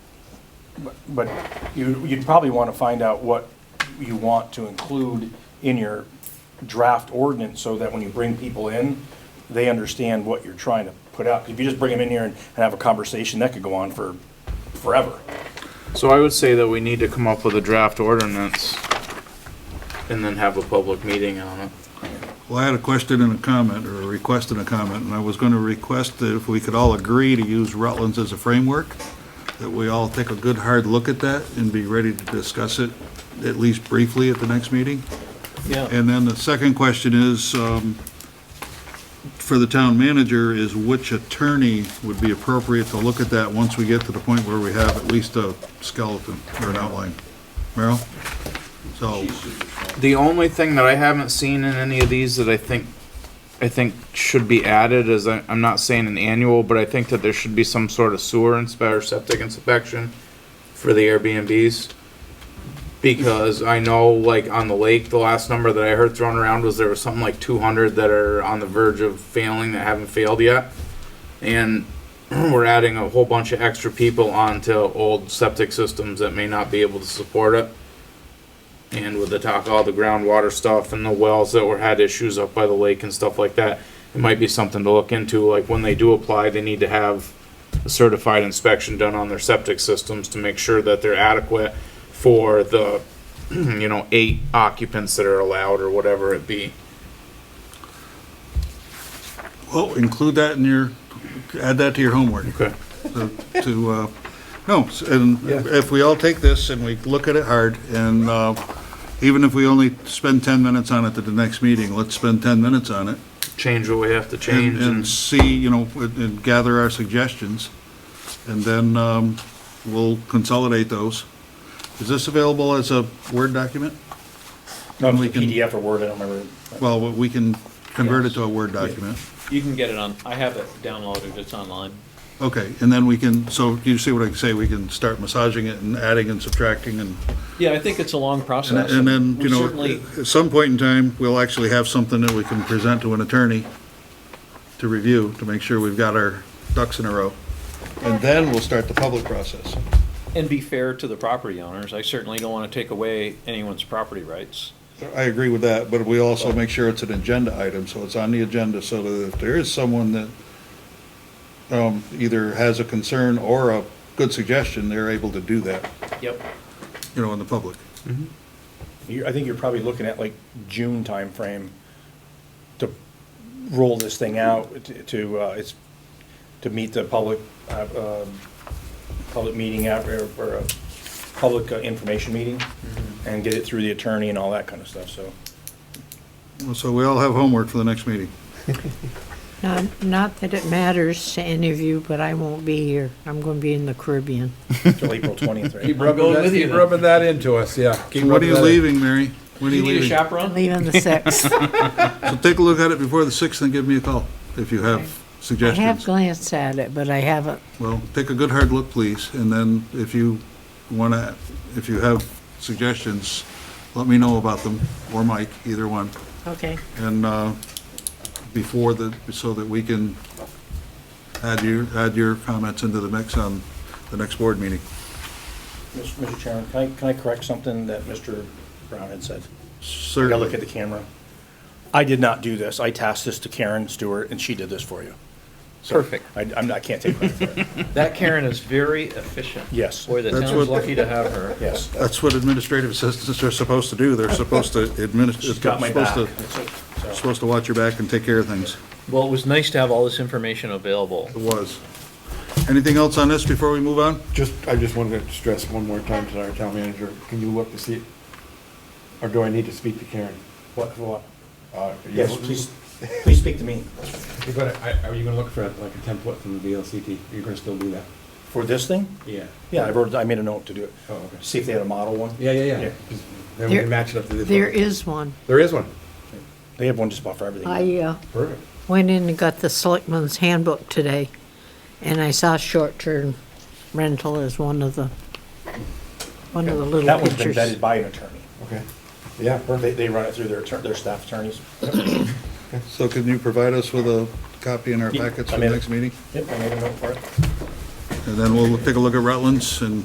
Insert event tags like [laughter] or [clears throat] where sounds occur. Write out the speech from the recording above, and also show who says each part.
Speaker 1: But- But you, you'd probably want to find out what you want to include in your draft ordinance so that when you bring people in, they understand what you're trying to put out. If you just bring them in here and and have a conversation, that could go on for forever.
Speaker 2: So I would say that we need to come up with a draft ordinance and then have a public meeting on it.
Speaker 3: Well, I had a question and a comment, or a request and a comment, and I was going to request that if we could all agree to use Rutland's as a framework, that we all take a good, hard look at that and be ready to discuss it, at least briefly, at the next meeting.
Speaker 2: Yeah.
Speaker 3: And then the second question is, um, for the town manager, is which attorney would be appropriate to look at that once we get to the point where we have at least a skeleton or an outline? Merrill? So,
Speaker 2: The only thing that I haven't seen in any of these that I think, I think should be added is, I- I'm not saying an annual, but I think that there should be some sort of sewer inspection or septic inspection for the Airbnbs. Because I know, like, on the lake, the last number that I heard thrown around was there was something like two hundred that are on the verge of failing that haven't failed yet. And [clears throat] we're adding a whole bunch of extra people onto old septic systems that may not be able to support it. And with the talk, all the groundwater stuff and the wells that were had issues up by the lake and stuff like that, it might be something to look into, like when they do apply, they need to have a certified inspection done on their septic systems to make sure that they're adequate for the, [clears throat] you know, eight occupants that are allowed or whatever it be.
Speaker 3: well, include that in your, add that to your homework.
Speaker 2: Okay.
Speaker 3: to, uh, no, s- and if we all take this and we look at it hard, and uh, even if we only spend 10 minutes on it at the next meeting, let's spend 10 minutes on it
Speaker 2: Change what we have to
Speaker 3: and-
Speaker 2: change
Speaker 3: and
Speaker 2: and,
Speaker 3: see, you know, and- and gather our suggestions, and then um, we'll consolidate those. Is this available as a Word document?
Speaker 1: Not
Speaker 3: we can-
Speaker 1: PDF or Word, I don't remember.
Speaker 3: Well, we can convert it to a Word document.
Speaker 4: You can get it on, I have it downloaded, it's online.
Speaker 3: Okay, and then we can, so you see what I say, we can start massaging it and adding and subtracting and
Speaker 4: Yeah, I think it's a long
Speaker 3: And
Speaker 4: process.
Speaker 3: and then, you
Speaker 4: We
Speaker 3: know,
Speaker 4: Certainly,
Speaker 3: at some point in time, we'll actually have something that we can present to an attorney to review, to make sure we've got our ducks in a row. And then we'll start the public process.
Speaker 4: and be fair to the property owners, I certainly don't want to take away anyone's property rights.
Speaker 3: I agree with that, but we also make sure it's an agenda item, so it's on the agenda, so that if there is someone that um, either has a concern or a good suggestion, they're able to do that,
Speaker 4: Yep.
Speaker 3: you know, in the public.
Speaker 1: You're, I think you're probably looking at like June timeframe to roll this thing out to- to, uh, it's, to meet the public, uh, um, public meeting out, or, or a public uh, information meeting and get it through the attorney and all that kind of stuff, so.
Speaker 3: So we all have homework for the next meeting.
Speaker 5: Not, not that it matters to any of you, but I won't be here. I'm going to be in the Caribbean.
Speaker 1: [laughs] Till April twentieth, right?
Speaker 6: rubbing that, keep rubbing that into us, yeah. Keep
Speaker 3: When are
Speaker 6: rubbing
Speaker 3: you
Speaker 6: that in.
Speaker 3: leaving, Mary? When are
Speaker 4: You
Speaker 3: you
Speaker 4: need a
Speaker 3: leaving?
Speaker 5: I'm
Speaker 4: chaperone?
Speaker 5: [laughs] leaving the 6th.
Speaker 3: So take a look at it before the 6th and give me a call if you
Speaker 5: Okay.
Speaker 3: have
Speaker 5: I have
Speaker 3: suggestions.
Speaker 5: glanced at it, but I haven't.
Speaker 3: Well, take a good hard look, please, and then if you want to, if you have suggestions, let me know about them, or Mike, either one.
Speaker 5: Okay.
Speaker 3: And uh, before the, so that we can add your, add your comments into the mix on the next board meeting.
Speaker 1: Mis- Mr. Chairman, can I, can I correct something that Mr. Brown had said? I gotta look at
Speaker 3: Certainly.
Speaker 1: the camera. I did not do this. I tasked this to Karen Stewart and she did this for you. So,
Speaker 4: Perfect.
Speaker 1: I, I'm not, I can't take credit [laughs] for it.
Speaker 4: That Karen is very efficient.
Speaker 1: Yes.
Speaker 4: Boy, the
Speaker 3: That's
Speaker 4: town's
Speaker 3: what-
Speaker 4: lucky to have her.
Speaker 1: Yes.
Speaker 3: That's what administrative assistants are supposed to do. They're supposed to administer,
Speaker 1: She's got my
Speaker 3: supposed
Speaker 1: back.
Speaker 3: to,
Speaker 1: So-
Speaker 3: supposed to watch your back and take care of things.
Speaker 4: Well, it was nice to have all this information available.
Speaker 3: It was. Anything else on this before we move on?
Speaker 7: Just, I just wanted to stress one more time to our town manager, can you look to see, or do I need to speak to Karen?
Speaker 1: What, what?
Speaker 7: Uh,
Speaker 1: Yes, please, please speak to me.
Speaker 6: You're gonna- I- Are you gonna look for like a template from the VLCT? Are you gonna still do that?
Speaker 1: For this thing?
Speaker 6: Yeah.
Speaker 1: Yeah, I wrote, I made a note to do it.
Speaker 6: Oh, okay.
Speaker 1: See if they had a model one.
Speaker 6: Yeah, yeah,
Speaker 1: Yeah.
Speaker 6: yeah. Just- Then we
Speaker 5: There-
Speaker 6: can match it up to this.
Speaker 5: There
Speaker 6: one.
Speaker 5: is one.
Speaker 6: There is one.
Speaker 1: They have one just about for everything.
Speaker 5: I uh,
Speaker 6: Perfect.
Speaker 5: went in and got the Selectman's Handbook today, and I saw short-term rental as one of the, one of the little
Speaker 1: That one's been
Speaker 5: pictures.
Speaker 1: vetted by an attorney.
Speaker 7: Okay, yeah,
Speaker 1: They,
Speaker 7: perfect.
Speaker 1: they run it through their, attor- their staff attorneys.
Speaker 3: So can you provide us with a copy in our
Speaker 1: Yeah,
Speaker 3: packets
Speaker 1: I
Speaker 3: for
Speaker 1: made
Speaker 3: the
Speaker 1: it.
Speaker 3: next meeting?
Speaker 1: Yep, I made a note for it.
Speaker 3: And then we'll take a look at Rutland's and